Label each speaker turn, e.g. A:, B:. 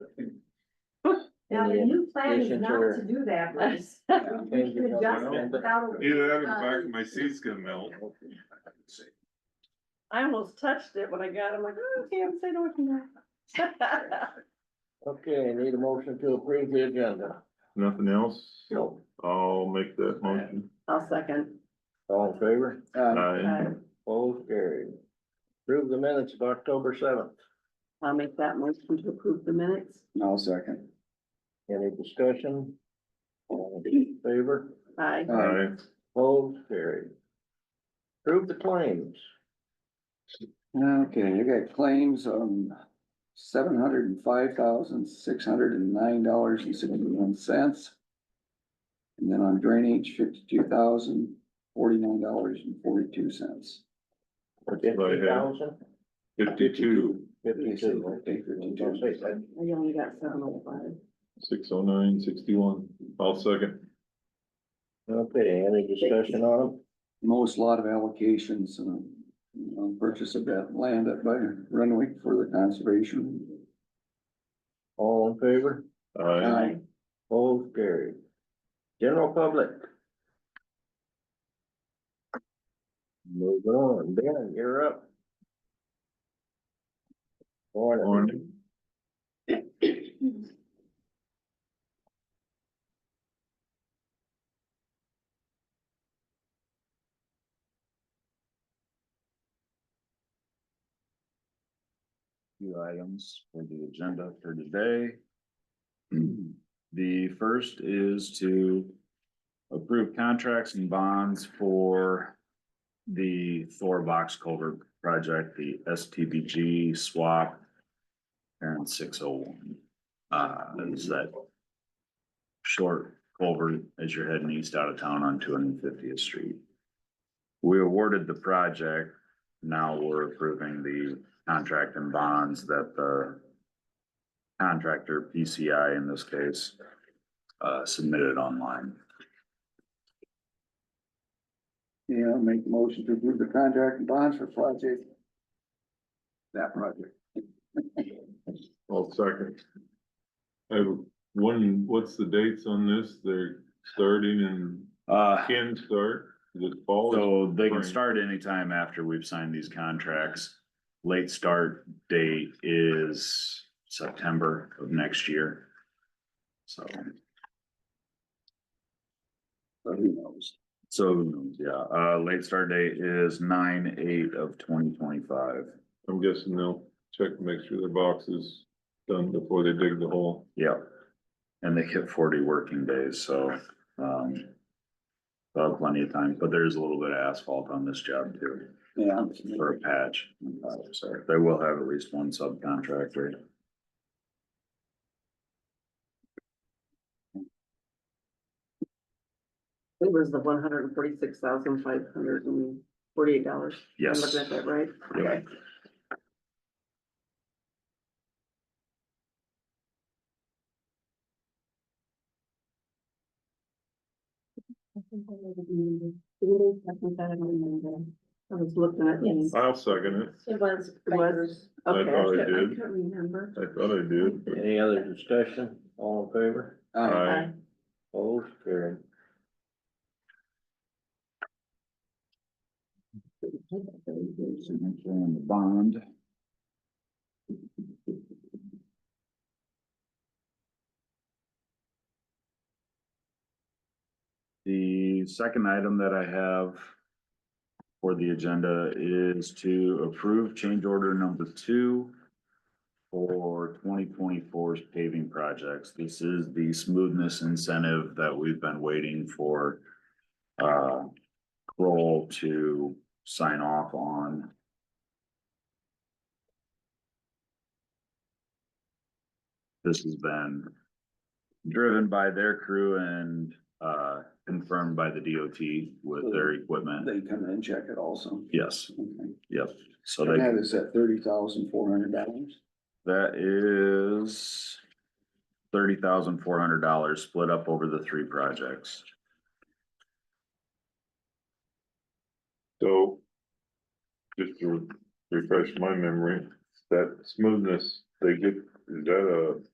A: Now, the
B: in
A: new plan is
B: addition to
A: not
B: her-
A: to do that, but it's-
B: Yeah, thank you,
A: you can adjust it
B: Councilmember.
A: without. a-
C: Either that or the back of my seat's gonna melt.
D: I almost touched it when I got, it. I'm like, oh, okay, I'm saying, what can I?
B: Okay, need a motion to approve the agenda.
C: Nothing else?
D: Nope.
C: I'll make that motion.
D: I'll second.
B: All in favor?
C: Aye.
D: Uh,
B: Both carried. Approve the minutes of October seventh.
D: I'll make that motion to approve the minutes.
E: No, second.
B: Any discussion? All in Favor?
D: Aye.
C: Aye.
B: Both carried. Approve the claims.
E: Okay, you got claims on seven hundred and five thousand, six hundred and nine dollars and sixty-one cents. And then on drainage, fifty-two thousand, forty-nine dollars and forty-two cents.
C: That's what I
B: Fifty
C: have.
B: thousand?
C: Fifty-two,
B: Fifty-two. Don't say that.
D: I only got seven oh five.
C: six oh nine, sixty-one. I'll second.
B: Okay, any discussion on them?
E: Most lot of allocations, um, on purchase of that land up by Renwick for the conservation.
B: All in favor?
C: Aye.
E: Aye.
B: Both carried. General public. Moving on, Ben, you're up. Morning.
C: Morning.
F: few items for the agenda for today. The first is to approve contracts and bonds for the Thor Box Culvert Project, the STBG swap and six oh one. Uh, is that short culvert as you're heading east out of town on two hundred and fiftieth street. We awarded the project, now we're approving the contract and bonds that the contractor, PCI in this case, uh, submitted online.
E: Yeah, make the motion to approve the contract and bonds for project. That project.
C: I'll second. I, have one. what's the dates on this? They're starting and
F: Uh,
C: can start this fall.
F: so they can start anytime after we've signed these contracts. Late start date is September of next year. So,
E: So who knows?
F: so, yeah, uh, late start date is nine eight of twenty twenty-five.
C: I'm guessing they'll check, to make sure their box is done before they dig the hole.
F: Yep. And they hit forty working days, so, um. they'll have plenty of time, but there's a little bit of asphalt on this job too,
E: Yeah.
F: for a patch. So they will have at least one subcontractor.
D: It was the one hundred and forty-six thousand five hundred and forty-eight dollars. I'm
F: Yes.
D: looking at that right.
F: Yeah.
D: I was looking at these.
C: I'll second it.
A: It was.
D: It was, okay.
C: thought I
D: couldn't-
C: did.
D: couldn't remember.
C: I thought I did. but-
B: Any other discussion? All in favor?
E: Uh,
C: Aye.
B: Both carried.
F: Signature on the bond. The second item that I have for the agenda is to approve change order number two for 2024's paving projects. This is the smoothness incentive that we've been waiting for uh, Kroll to sign off on. This has been driven by their crew and uh confirmed by the DOT with their equipment.
E: They come in and check it also.
F: Yes,
E: Okay.
F: yep. So
E: And
F: they,
E: that is at thirty thousand four hundred dollars.
F: that is thirty thousand four hundred dollars split up over the three projects.
C: So. Just to refresh my memory, that smoothness, they get, is that